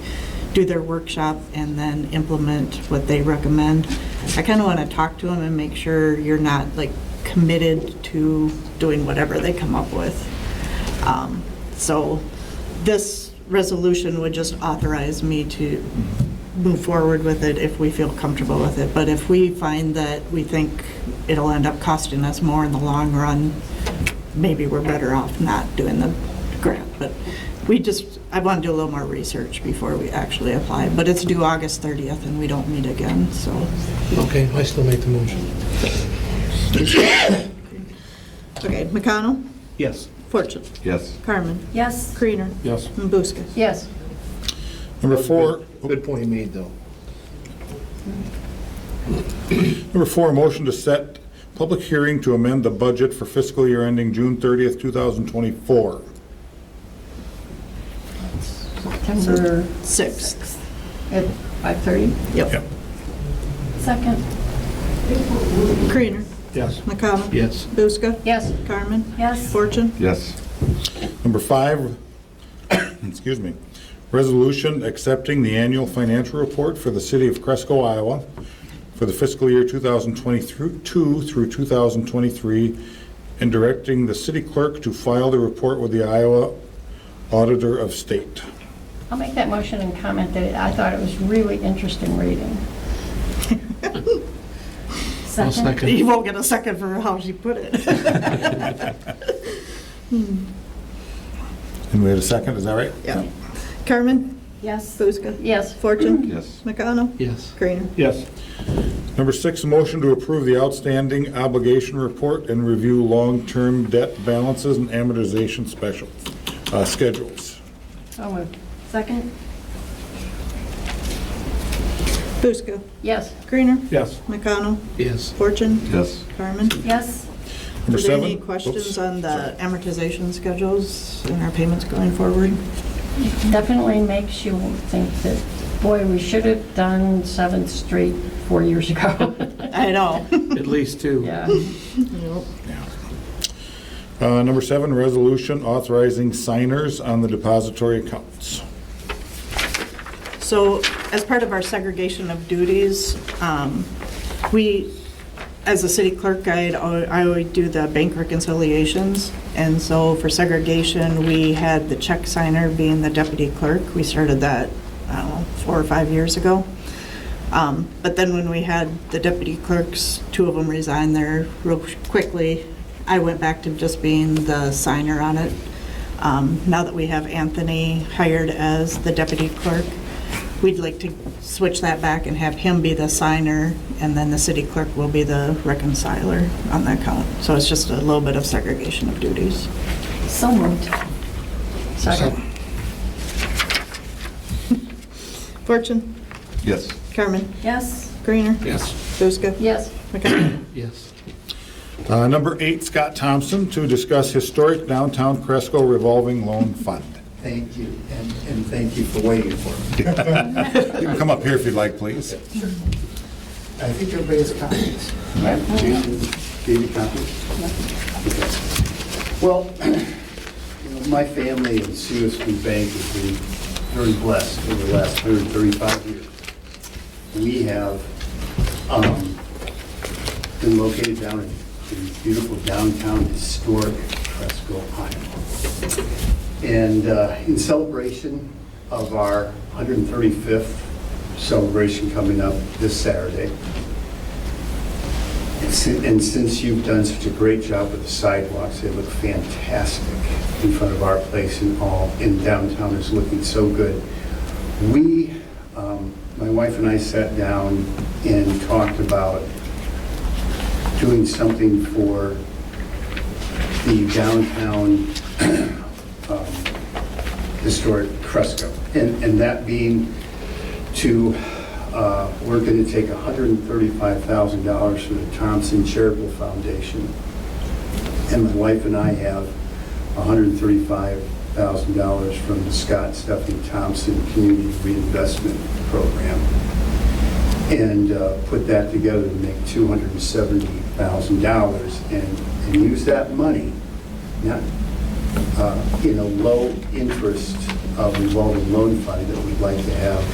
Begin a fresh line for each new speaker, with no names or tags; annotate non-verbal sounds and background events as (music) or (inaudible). do their workshop and then implement what they recommend. I kind of want to talk to them and make sure you're not like committed to doing whatever they come up with. Um, So this resolution would just authorize me to move forward with it if we feel comfortable with it. But if we find that we think it'll end up costing us more in the long run, maybe we're better off not doing the grant. But we just, I want to do a little more research before we actually apply. But it's due August 30th and we don't meet again, so.
Okay, I still make the motion.
Okay, McConnell,
Yes.
Fortune,
Yes.
Carmen,
Yes.
Kreener,
Yes.
and Buska.
Yes.
Number four,
Good point you made, though.
number four, motion to set public hearing to amend the budget for fiscal year ending June 30th, 2024.
September
Sixth.
at 5:30?
Yep.
Second.
Kreener,
Yes.
McConnell.
Yes.
Buska.
Yes.
Carmen.
Yes.
Fortune.
Yes.
Number five, (coughs) excuse me, resolution accepting the annual financial report for the city of Cresco, Iowa for the fiscal year 2022 through 2023, and directing the city clerk to file the report with the Iowa Auditor of State.
I'll make that motion and comment that I thought it was really interesting (laughs) reading.
I'll second.
You won't get a second for how she put it.
(laughs)
And we had a second, is that right?
Yeah. Carmen,
Yes.
Buska,
Yes.
Fortune,
Yes.
McConnell,
Yes.
Kreener.
Yes.
Number six, motion to approve the outstanding obligation report and review long-term debt balances and amortization special, uh, schedules.
So moved. Second.
Buska,
Yes.
Kreener,
Yes.
McConnell,
Yes.
Fortune,
Yes.
Carmen.
Yes.
Are
Number
there
seven.
any
Oops.
questions on the amortization schedules and our payments going forward?
Definitely makes you think that, boy, we should have done 7th Street four years ago. (laughs)
I know. (laughs)
At least two.
Yeah.
Uh, Number seven, resolution authorizing signers on the depository accounts.
So as part of our segregation of duties, um, we, as a city clerk guide, I always do the bank reconciliations. And so for segregation, we had the check signer being the deputy clerk. We started that, I don't know, four or five years ago. Um, But then when we had the deputy clerks, two of them resigned there real quickly, I went back to just being the signer on it. Um, Now that we have Anthony hired as the deputy clerk, we'd like to switch that back and have him be the signer, and then the city clerk will be the reconciler on that count. So it's just a little bit of segregation of duties.
So moved. Second.
Fortune,
Yes.
Carmen,
Yes.
Greener,
Yes.
Buska,
Yes.
McConnell.
Yes.
Uh, Number eight, Scott Thompson to discuss historic downtown Cresco revolving loan fund.
Thank you, and, and thank you for waiting for me.
You can come up here if you'd like, please.
I think everybody has copies. Gave you copies? Well, (clears throat) you know, my family and Cedar Street Bank has been very blessed over the last 135 years. We have um, been located down in in beautiful downtown historic Cresco, Iowa. And uh, in celebration of our 135th celebration coming up this Saturday, and si- and since you've done such a great job with the sidewalks, they look fantastic in front of our place and all, in downtown is looking so good. We, um, my wife and I sat down and talked about doing something for the downtown um, historic Cresco. And, and that being to, uh, we're going to take $135,000 from the Thompson Charitable Foundation. And my wife and I have $135,000 from the Scott Stephanie Thompson Community Reinvestment Program and uh, put that together to make $270,000 and, and use that money, not uh, in a low interest uh, revolving loan fund that we'd like to have